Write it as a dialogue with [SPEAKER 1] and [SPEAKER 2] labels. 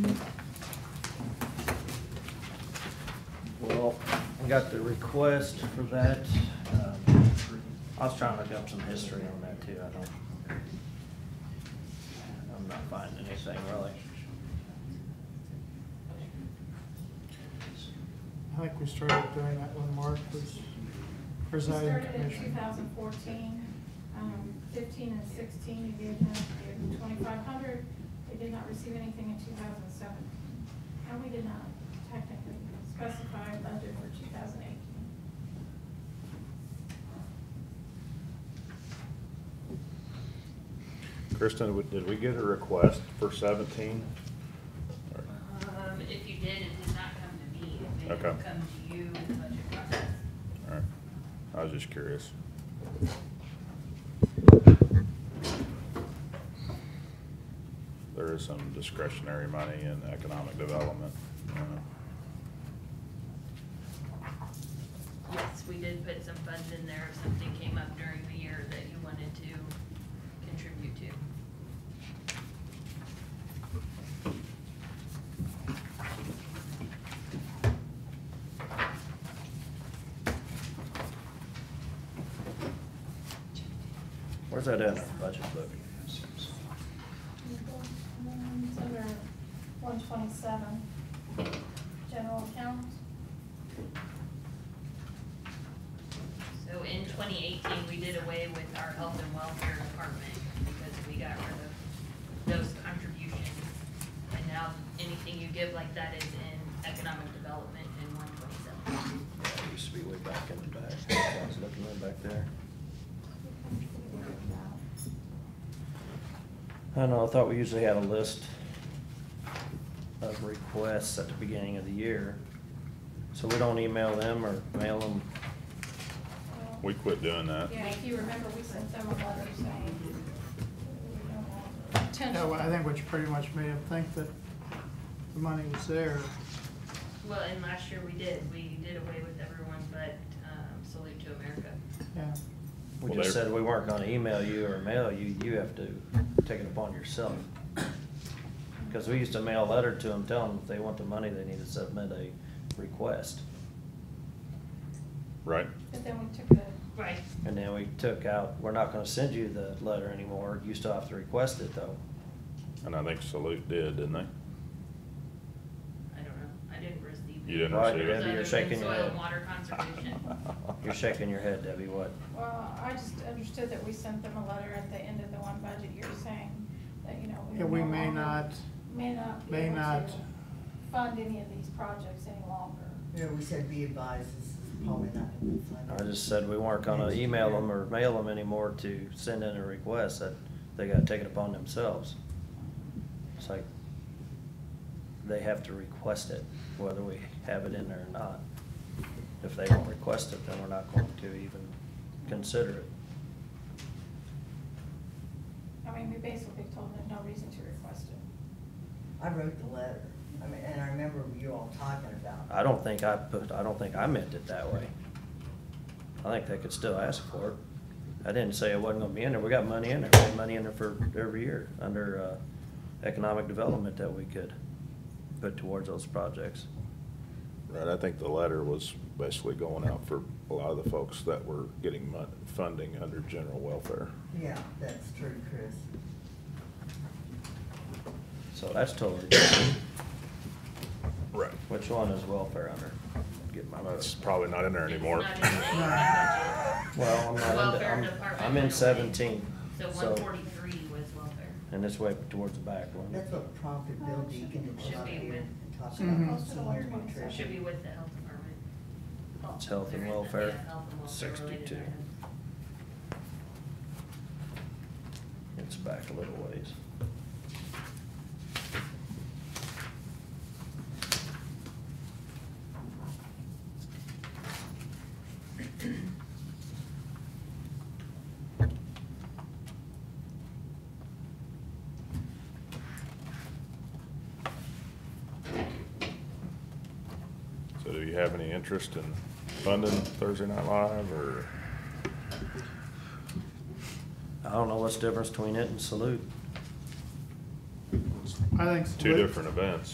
[SPEAKER 1] got the request for that. Um, I was trying to look up some history on that too, I don't. I'm not finding anything really.
[SPEAKER 2] I think we started doing that when Mark was presiding
[SPEAKER 3] Started in two
[SPEAKER 2] commissioner.
[SPEAKER 3] thousand fourteen, um, fifteen and sixteen, you gave them twenty-five hundred, they did not receive anything in two thousand seven. And we did not technically specify a budget for two thousand eighteen.
[SPEAKER 4] Kristen, w- did we get a request for seventeen?
[SPEAKER 5] Um, if you did, it did not come to me, it may have
[SPEAKER 4] Okay.
[SPEAKER 5] come to you in the budget process.
[SPEAKER 4] Alright, I was just curious. There is some discretionary money in economic development. uh,
[SPEAKER 5] Yes, we did put some funds in there if something came up during the year that you wanted to contribute to.
[SPEAKER 1] Where's that at in our budget book?
[SPEAKER 3] It's under one twenty-seven, general account.
[SPEAKER 5] So in twenty eighteen, we did away with our health and welfare department because we got rid of those contributions. And now anything you give like that is in economic development in one twenty-seven.
[SPEAKER 1] Yeah, it used to be way back in the back. I was looking way back there. I don't know, I thought we usually had a list of requests at the beginning of the year. So we don't email them or mail them.
[SPEAKER 4] We quit doing that.
[SPEAKER 3] Yeah, if you remember, we sent them a letter saying. we don't want-
[SPEAKER 2] Yeah, well, I think which pretty much made him think that the money was there.
[SPEAKER 5] Well, and last year we did, we did away with everyone but um, Salute to America.
[SPEAKER 2] Yeah,
[SPEAKER 1] We
[SPEAKER 4] Well,
[SPEAKER 1] just
[SPEAKER 4] they're-
[SPEAKER 1] said we weren't gonna email you or mail you, you have to take it upon yourself. Cause we used to mail a letter to them, telling them if they want the money, they need to submit a request.
[SPEAKER 4] Right?
[SPEAKER 3] But then we took the,
[SPEAKER 5] Right.
[SPEAKER 1] And then we took out, we're not gonna send you the letter anymore, you still have to request it though.
[SPEAKER 4] And I think Salute did, didn't they?
[SPEAKER 5] I don't know, I didn't receive.
[SPEAKER 4] You didn't
[SPEAKER 1] Right,
[SPEAKER 4] receive it?
[SPEAKER 1] Debbie, you're shaking your
[SPEAKER 5] Soil
[SPEAKER 1] head.
[SPEAKER 5] and water conservation.
[SPEAKER 1] You're shaking your head, Debbie, what?
[SPEAKER 3] well, I just understood that we sent them a letter at the end of the one budget year saying that, you know.
[SPEAKER 2] Yeah, we
[SPEAKER 3] no
[SPEAKER 2] may
[SPEAKER 3] longer-
[SPEAKER 2] not,
[SPEAKER 3] May not. be
[SPEAKER 2] may
[SPEAKER 3] able to
[SPEAKER 2] not.
[SPEAKER 3] Fund any of these projects any longer.
[SPEAKER 6] Yeah, we said be advised, this is probably not gonna be funded.
[SPEAKER 1] I just said we weren't gonna email them or mail them anymore to send in a request that they gotta take it upon themselves. It's like, they have to request it, whether we have it in there or not. If they don't request it, then we're not going to even consider it.
[SPEAKER 3] I mean, we basically told them no reason to request it.
[SPEAKER 6] I wrote the letter, I mean, and I remember you all talking about it.
[SPEAKER 1] I don't think I put, I don't think I meant it that way. I think they could still ask for it. I didn't say it wasn't gonna be in there, we got money in there, we had money in there for every year, under, uh, economic development that we could put towards those projects.
[SPEAKER 4] Right, I think the letter was basically going out for a lot of the folks that were getting mon- funding under general welfare.
[SPEAKER 6] Yeah, that's true, Chris.
[SPEAKER 1] So that's totally different.
[SPEAKER 4] Right.
[SPEAKER 1] Which one is welfare under? Get my
[SPEAKER 4] That's probably not in there
[SPEAKER 5] It's
[SPEAKER 4] anymore.
[SPEAKER 5] not in the budget.
[SPEAKER 1] Well, I'm not into,
[SPEAKER 5] Welfare
[SPEAKER 1] I'm,
[SPEAKER 5] department
[SPEAKER 1] I'm
[SPEAKER 5] went away.
[SPEAKER 1] in seventeen,
[SPEAKER 5] So
[SPEAKER 1] so,
[SPEAKER 5] one forty-three was welfare.
[SPEAKER 1] and it's way towards the back one.
[SPEAKER 6] That's what prompted Bill Deacon to come
[SPEAKER 5] Should
[SPEAKER 6] up
[SPEAKER 5] be
[SPEAKER 6] here
[SPEAKER 5] with-
[SPEAKER 6] and talk
[SPEAKER 2] Should be
[SPEAKER 6] about
[SPEAKER 3] posted on
[SPEAKER 6] senior
[SPEAKER 3] 27.
[SPEAKER 6] nutrition.
[SPEAKER 5] Should be with the health department.
[SPEAKER 1] It's health and
[SPEAKER 5] There is a-
[SPEAKER 1] welfare,
[SPEAKER 5] yeah, health and welfare related
[SPEAKER 1] 62.
[SPEAKER 5] items.
[SPEAKER 1] It's back a little ways.
[SPEAKER 4] So do you have any interest in funding Thursday Night Live or?
[SPEAKER 1] I don't know what's the difference between it and salute.
[SPEAKER 2] I think.
[SPEAKER 4] Two different events.